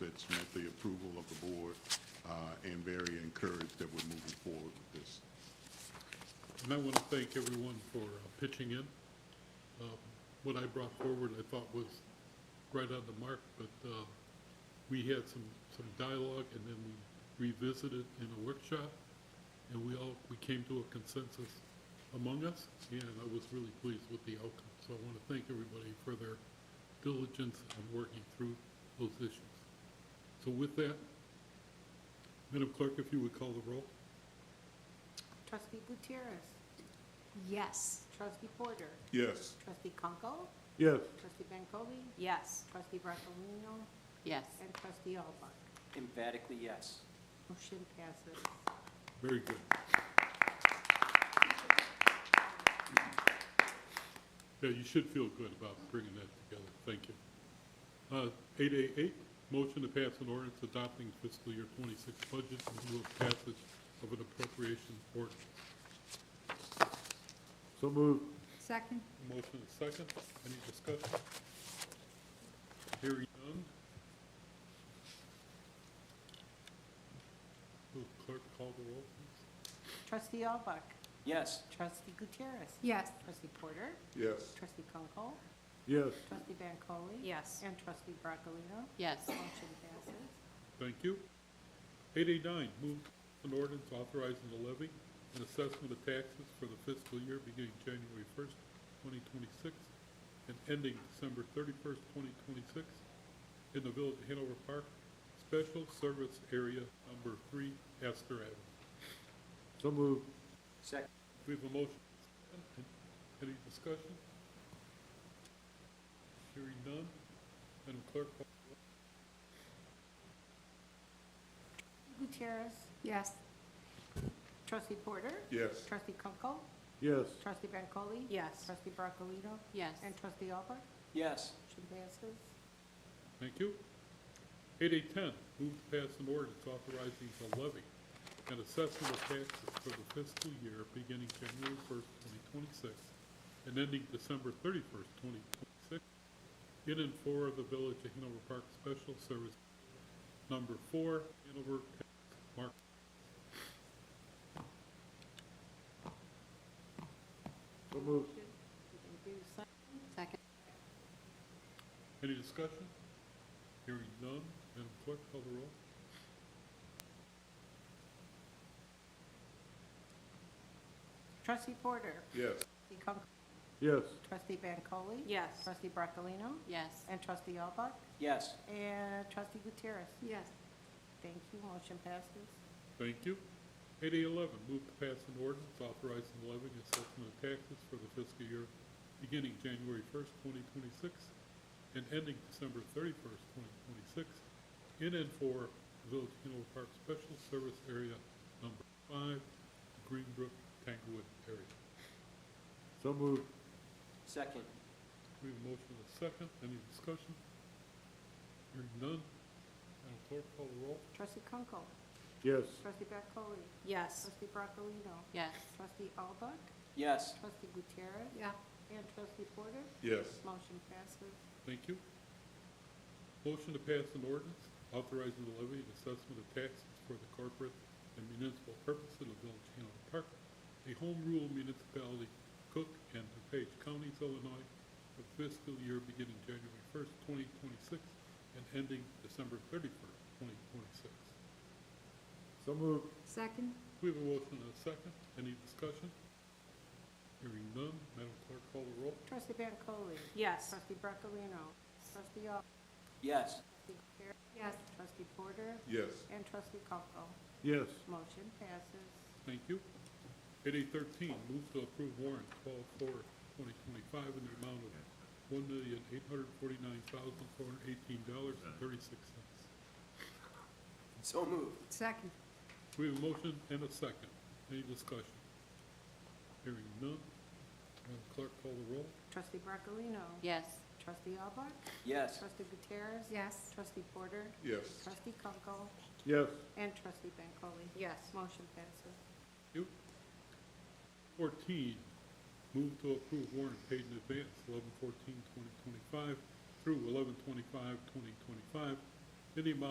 uh, encouraged that we're moving forward with this. And I want to thank everyone for uh, pitching in. Um, What I brought forward, I thought was right on the mark, but uh, we had some, some dialogue, and then we revisited in a workshop, and we all, we came to a consensus among us, and I was really pleased with the outcome. So I want to thank everybody for their diligence in working through those issues. So with that, Madam Clerk, if you would call the roll. Trustee Gutierrez. Yes. Trustee Porter. Yes, Trustee Kunkel. Yes. Trustee Bankole. Yes. Trustee Bartolino. Yes. And Trustee Albuck. Emphatically, yes. Motion passes. Very good. Yeah, you should feel good about bringing that together. Thank you. Uh, 888, motion to pass an ordinance adopting fiscal year 26 budget in lieu of passage of an appropriation ordinance. So moved. Second? Motion is second. Any discussion? Hearing none. Will clerk call the roll, please? Trustee Albuck. Yes, Trustee Gutierrez. Yes. Trustee Porter. yes, Trustee Kunkel. Yes. Trustee Bankole. Yes. And Trustee Bartolino. Yes. Motion passes. Thank you. Eight eight nine, move an ordinance authorizing the levy and assessment of taxes for the fiscal year beginning January first, twenty twenty-six, and ending December thirty-first, twenty twenty-six, in the Village of Hanover Park, Special Service Area Number Three, Astor Avenue. So moved. second, We have a motion. Any discussion? Hearing none. Madam Clerk, call the roll. Gutierrez. Yes. Trustee Porter. yes, Trustee Kunkel. Yes. Trustee Bankole. Yes. Trustee Bartolino. Yes. And Trustee Albuck. yes, Motion passes. Thank you. Eight eight ten, move to pass an ordinance authorizing the levy and assessment of taxes for the fiscal year beginning January first, twenty twenty-six, and ending December thirty-first, twenty twenty-six, in and for the Village of Hanover Park Special Service Number Four, Hanover Tax Mark. So moved. Second? Any discussion? Hearing none, Madam Clerk, call the roll. Trustee Porter. yes, Trustee Kunkel. Yes. Trustee Bancole. Yes. Trustee Bartolino. Yes. And Trustee Albuck. yes, And Trustee Gutierrez. Yes. Thank you, motion passes. Thank you. Eight A eleven, move to pass an ordinance authorizing the levying and assessment of taxes for the fiscal year beginning January first, twenty twenty-six, and ending December thirty-first, twenty twenty-six, in and for Village of Hanover Park Special Service Area Number Five, Greenbrook, Tanglewood area. So moved. second, We have a motion and a second. Any discussion? Hearing none. Madam Clerk, call the roll. Trustee Kunkel. Yes. Trustee Bancole. Yes. Trustee Broccolino. Yes. Trustee Albuck. yes, Trustee Gutierrez. Yeah. And Trustee Porter. yes, Motion passes. Thank you. Motion to pass an ordinance authorizing the levy and assessment of taxes for the corporate and municipal purposes of Village of Hanover Park, a home rule municipality, Cook and DuPage Counties, Illinois, for fiscal year beginning January first, twenty twenty-six, and ending December thirty-first, twenty twenty-six. So moved. Second? We have a motion and a second. Any discussion? Hearing none. Madam Clerk, call the roll. Trustee Bancole. Yes. Trustee Broccolino. Trustee Albuck. yes, Trustee Gutierrez. Yes. Trustee Porter. yes, And Trustee Kunkel. Yes. Motion passes. Thank you. At eight thirteen, move to approve warrant twelve four twenty twenty-five in the amount of one million eight hundred forty-nine thousand four hundred eighteen dollars and thirty-six cents. so moved, Second? We have a motion and a second. Any discussion? Hearing none. Madam Clerk, call the roll. Trustee Broccolino. Yes. Trustee Albuck. yes, Trustee Gutierrez. Yes. Trustee Porter. yes, Trustee Kunkel. Yes. And Trustee Bancole. Yes. Motion passes. Thank you. Fourteen, move to approve warrant paid in advance, eleven fourteen twenty twenty-five through eleven twenty-five twenty twenty-five, in the amount